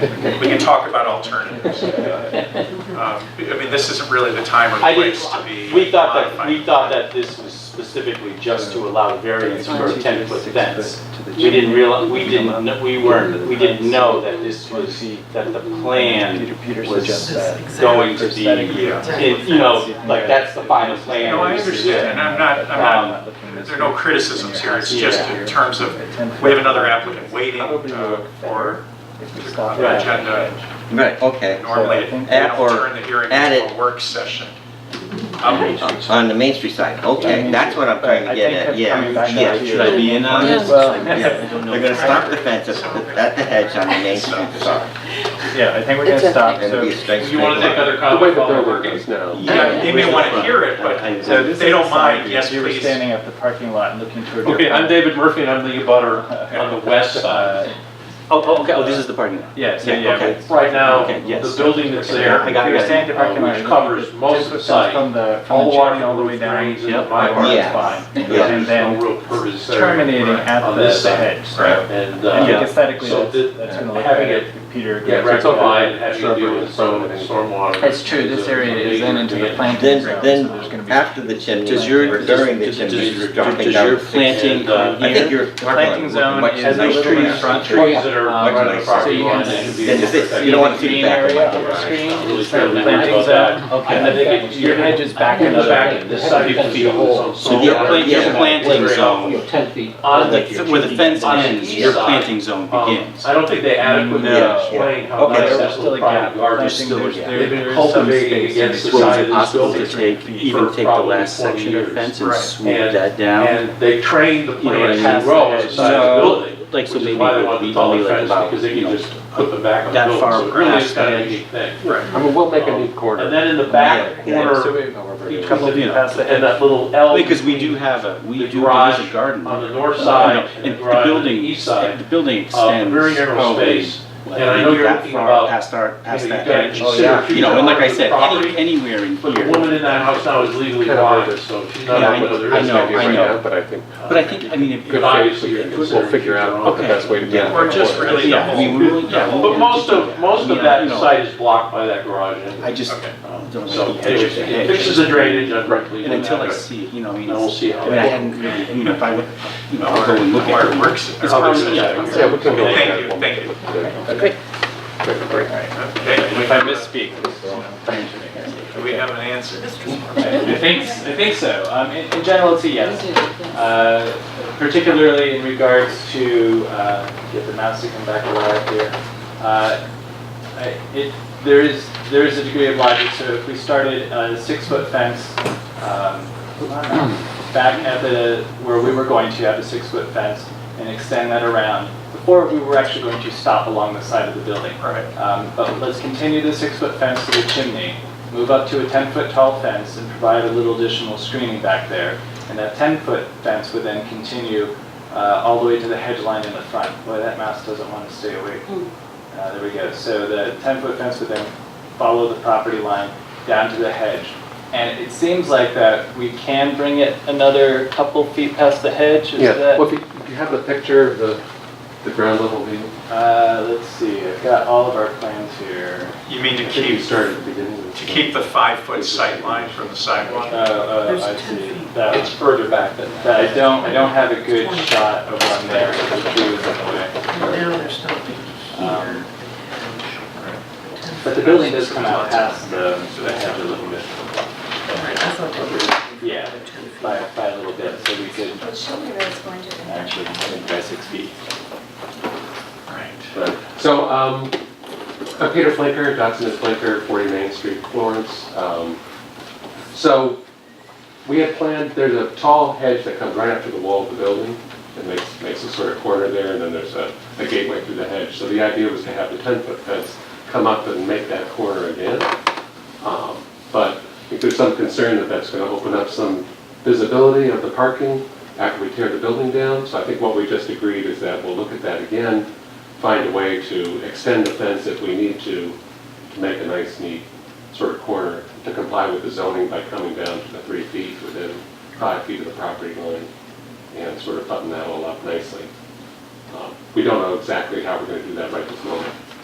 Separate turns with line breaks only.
we can talk about alternatives. Um, I mean, this isn't really the time
I
or
didn't,
place to be.
we thought that, we
modifying.
thought that this was specifically just to allow variance for a ten-foot fence. We
did
didn't realize, we didn't, kn- we weren't, we didn't know that this was, that the plan was going to be, it- you know, like, that's the final plan.
No, I understand, and I'm not, I'm not,
Um,
there are no criticisms here, it's just in terms of, we have another applicant waiting uh, for the
Right.
agenda.
Right, okay.
Normally, we
At
don't
or
turn the hearing
at
into
it.
a work session. Um,
On the Main Street side, okay, that's what I'm trying to get at, yeah, yeah.
Should I be in on
Yeah.
this?
yeah. They're gonna stop the fence at at the hedge on the Main Street side,
Yeah, I think we're
It's
gonna
a-
stop,
and it'll
so,
be a straight,
You
straight
want to take
line.
other comments while we're working?
now.
Yeah, they may want to hear it, but
so this is.
they
the
don't
side
mind,
view.
yes,
You were
please.
standing at the parking lot and looking toward. your
Okay, I'm
front.
David Murphy and I'm the abutter on the west side.
Uh,
Oh, oh, okay, oh, this is the parking lot.
Yeah, so
Yeah,
yeah.
okay.
Right now,
Okay, yes.
the building that's there,
I got-
If
I
you're
got it.
standing at the
uh,
parking lot.
which covers most of the
just
site,
From the, from
all
the
along
chimney
the
all the way down.
greens
to
and
the
the my
park is
Yeah.
fine.
Yeah.
And
no
then
real purpose there.
terminating at
on
the
this
the
side.
hedge, so.
Right.
And,
I think
uh,
aesthetically,
so
that's,
thi-
that's gonna look
having
better. Peter.
yeah,
agrees with
rectified,
that.
having to deal with some stormwater.
That's true, this area is then into the planting
Then,
zone, so there's gonna
then
be.
after the chimney,
Does your-
or during the
does-
chimney,
does-
you're dropping
does
down.
your
six
planting-
inches.
And, uh,
I think you're talking
Planting
about
zone
much
and
And
the
the
nicer.
little in
trees,
front.
trees that are
Um,
right on the
so
property
you
line.
can
that could be-
Then is this, you don't want to see the
Green
back of
area,
my
the
garage.
screen,
Really
it's not
fairly
planting
well
zone.
done.
Okay.
I think it-
Your hedge is back
In the
another.
back, end, this side you can see whole.
So your plant, your
Yeah.
planting zone,
Ten feet.
on the- where the fence
On the
ends,
east
your
side.
planting zone
Um,
begins.
Um, I don't think they adequately
No.
explain how
Okay.
nice
There's
that
still
little
a gap.
private garden
Planting,
is.
there's-
there.
there's
They've been
some
cultivating
space in
against the
between.
Was
side of
it
this
possible to
building.
take, even take the last section of fence and
Right.
smooth that down?
And they trained the
You know what I
plants
mean?
to grow on the side of the
So,
building,
Like,
which
so
is
maybe
why they
it would
wanted
be
the taller
only like
fence,
about,
because they
you
can
know,
just put them back on the
that
building.
far
So it really is
past
kind of a
the
neat thing.
Right.
I mean, we'll
make a new
corner.
And then in the back
Yeah.
corner,
Because
each of
Couple
the,
feet past the
and that little L.
we do have a, we
The
do, there is
garage
a garden.
On the north
No,
side
no,
and the
the
garage on the
building-
east side.
The building
uh,
extends.
very narrow
probably,
space.
like,
And I know
maybe
you're
that
thinking
far
about,
Past our,
You know,
past
you've
that
got to
edge.
consider
You know, and like I said, any,
property.
anywhere in
But the
here.
woman in that house now is legally
Kind of
blind,
like
so she's
Yeah,
not
I-
aware there
I
is.
know, I know.
but I think
But I think, I mean, if.
Good, obviously, you're
we'll figure out the
Okay.
best way to do
Yeah.
it.
Or just really the
Yeah, I mean,
whole,
we really, yeah. we
But
can
most
do
of, most
I
of
mean,
that
you know,
site is blocked by that garage
I
anyway.
just
okay.
don't
So
like the edge
anyways,
of the
it
hedge.
fixes the drainage, I'm rightly.
And until I see it, you know, I mean,
And we'll
it's-
see
I
how.
mean, I hadn't really, you know, if I would, you know, I'll go and look
Where
at
it
it.
uh, works.
It's probably,
Yeah,
yeah.
we can go with
Thank you,
that one.
thank you.
Great.
Okay,
If I misspeak.
do we have an answer?
I think, I think so. Um, in, in general, it's a yes. Uh, particularly in regards to, uh, get the mouse to come back alive here. Uh, I- It, there is, there is a degree of logic, so if we started a six-foot fence, um, back at the, where we were going to have a six-foot fence and extend that around, before we were actually going to stop along the side of the building.
Right.
Um, But let's continue the six-foot fence to the chimney, move up to a 10-foot tall fence and provide a little additional screening back there. And that 10-foot fence would then continue uh, all the way to the hedge line in the front. Boy, that mouse doesn't want to stay awake. Uh, There we go. So the 10-foot fence would then follow the property line down to the hedge. And it seems like that we can bring it another couple feet past the hedge, is
Yeah,
that?
well, if you, if you have the picture of the, the ground level view,
Uh, Let's see, I've got all of our plans here.
You mean to
I think you
keep, to
started at the beginning. of the-
keep the five-foot sight line from the
Oh,
sidewalk?
oh, I
There's 10
see.
feet.
That
It's further back than that.
that I don't, I don't have a good shot of one there, because the tree was in the way.
Now there's something
Um,
here.
But the building does come out past the, the hedge a little bit.
I thought that was-
Yeah, by, by a little bit, so we could
Well, show me where it's going to end.
actually, think by six feet.
Right.
Right. So, um, I'm Peter Flinker, Dotson and Flinker, 40 Main Street, Florence. Um, So, we had planned, there's a tall hedge that comes right up to the wall of the building and makes, makes a sort of corner there, and then there's a, a gateway through the hedge. So the idea was to have the 10-foot fence come up and make that corner again. Um, But I think there's some concern that that's going to open up some visibility of the parking after we tear the building down. So I think what we just agreed is that we'll look at that again find a way to extend the fence if we need to, to make a nice neat sort of corner to comply with the zoning by coming down to the three feet within five feet of the property line and sort of button that all up nicely. Um, We don't know exactly how we're going to do that right this moment.